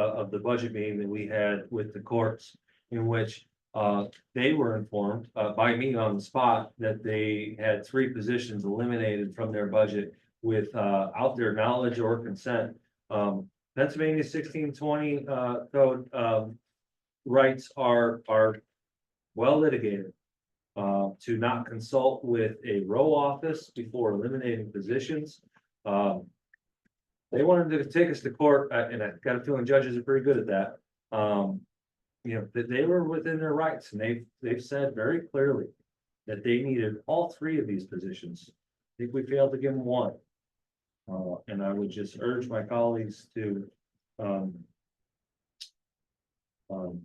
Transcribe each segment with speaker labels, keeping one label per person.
Speaker 1: uh, of the budget meeting that we had with the courts. In which, uh, they were informed, uh, by me on the spot that they had three positions eliminated from their budget. With, uh, out their knowledge or consent, um, Pennsylvania sixteen twenty, uh, code, um. Rights are, are well litigated. Uh, to not consult with a row office before eliminating positions, um. They wanted to take us to court, uh, and I got a feeling judges are pretty good at that, um. You know, that they were within their rights, and they've, they've said very clearly that they needed all three of these positions. I think we failed to give them one. Uh, and I would just urge my colleagues to, um. um,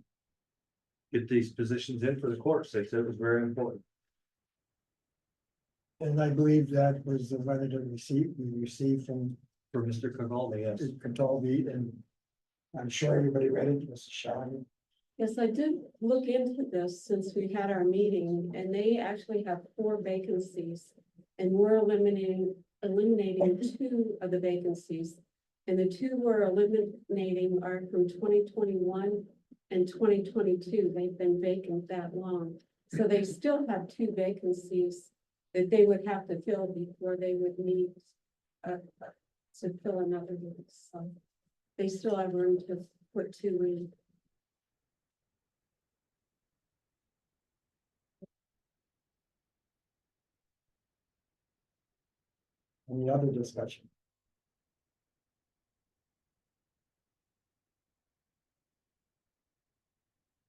Speaker 1: Get these positions in for the courts. They said it was very important.
Speaker 2: And I believe that was the letter that we received, we received from
Speaker 1: For Mr. Cavaldi, yes.
Speaker 2: Contalvi and. I'm sure everybody read it, Mr. Shine.
Speaker 3: Yes, I did look into this since we had our meeting and they actually have four vacancies. And we're eliminating, eliminating two of the vacancies. And the two we're eliminating are from twenty twenty-one and twenty twenty-two. They've been vacant that long. So they still have two vacancies that they would have to fill before they would need uh, to fill another one. So they still have room to put two in.
Speaker 2: Any other discussion?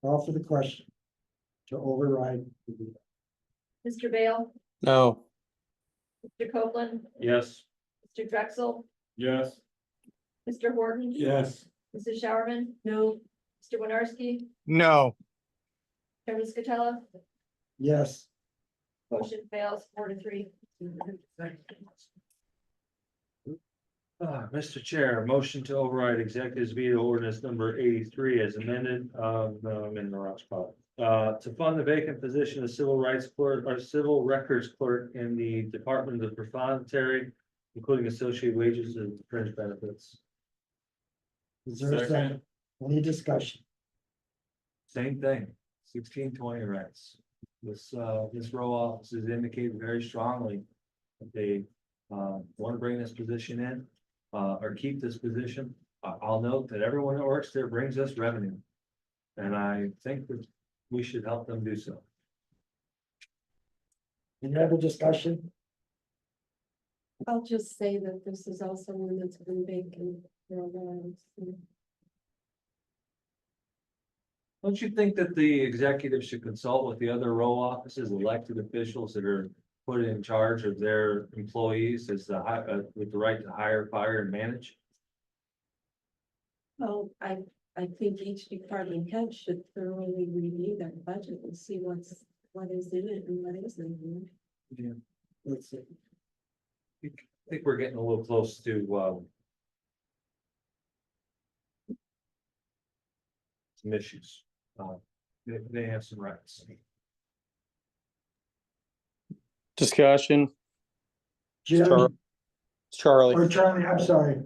Speaker 2: Call for the question. To override. the-
Speaker 4: Mr. Bale,
Speaker 5: No,
Speaker 4: Mr. Copeland,
Speaker 1: Yes.
Speaker 4: Mr. Drexel,
Speaker 1: Yes.
Speaker 4: Mr. Horton.
Speaker 2: Yes.
Speaker 4: Mrs. Showerman,
Speaker 3: No,
Speaker 4: Mr. Winarski,
Speaker 5: no,
Speaker 4: Chairman Scatella,
Speaker 2: Yes,
Speaker 4: motion fails four to three.
Speaker 1: Uh, Mr. Chair, motion to override executives veto ordinance number eighty-three as amended, um, no, I'm in the wrong spot. Uh, to fund the vacant position of civil rights clerk or civil records clerk in the Department of the Profondary, including associated wages and fringe benefits.
Speaker 2: is there a second? Any discussion?
Speaker 1: Same thing, sixteen twenty rents. This, uh, this row office has indicated very strongly that they, uh, want to bring this position in, uh, or keep this position. I, I'll note that everyone that works there brings us revenue. And I think that we should help them do so.
Speaker 2: Any other discussion?
Speaker 3: I'll just say that this is also one that's been vacant for a while. so.
Speaker 1: Don't you think that the executive should consult with the other row offices, elected officials that are put in charge of their employees as the, hi- uh, with the right to hire, fire and manage?
Speaker 3: Well, I, I think each department head should thoroughly review their budget and see what's, what is in it and what isn't. you know?
Speaker 2: Let's see.
Speaker 1: I think we're getting a little close to, um. Some issues, uh, they, they have some rights.
Speaker 5: discussion,
Speaker 2: Jim, or
Speaker 5: Charlie.
Speaker 2: Charlie, I'm sorry.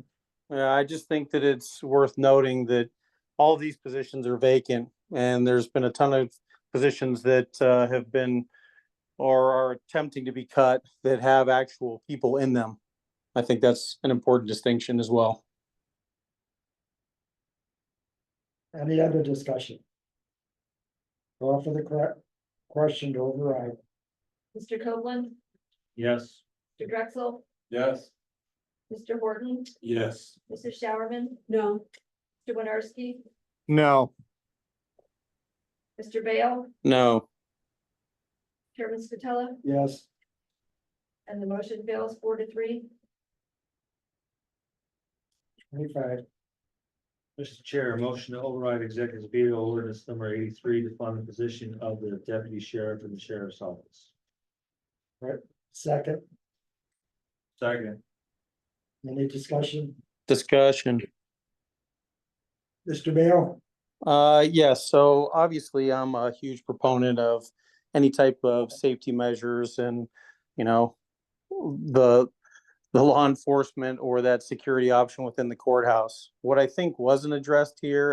Speaker 5: Yeah, I just think that it's worth noting that all these positions are vacant and there's been a ton of positions that uh, have been or are attempting to be cut that have actual people in them. I think that's an important distinction as well.
Speaker 2: Any other discussion? Call for the correct question to override.
Speaker 4: Mr. Copeland,
Speaker 1: Yes.
Speaker 4: Mr. Drexel,
Speaker 1: Yes.
Speaker 4: Mr. Horton,
Speaker 1: Yes.
Speaker 4: Mrs. Showerman,
Speaker 3: No,
Speaker 4: Mr. Winarski,
Speaker 5: No.
Speaker 4: Mr. Bale,
Speaker 5: No,
Speaker 4: Chairman Scatella,
Speaker 2: Yes,
Speaker 4: and the motion fails four to three.
Speaker 2: twenty-five,
Speaker 1: Mr. Chair, motion to override executive veto ordinance number eighty-three to fund the position of the deputy sheriff in the sheriff's office.
Speaker 2: second,
Speaker 1: Second.
Speaker 2: any discussion?
Speaker 5: discussion.
Speaker 2: Mr. Bale?
Speaker 5: Uh, yes, so obviously I'm a huge proponent of any type of safety measures and, you know, the the law enforcement or that security option within the courthouse. What I think wasn't addressed here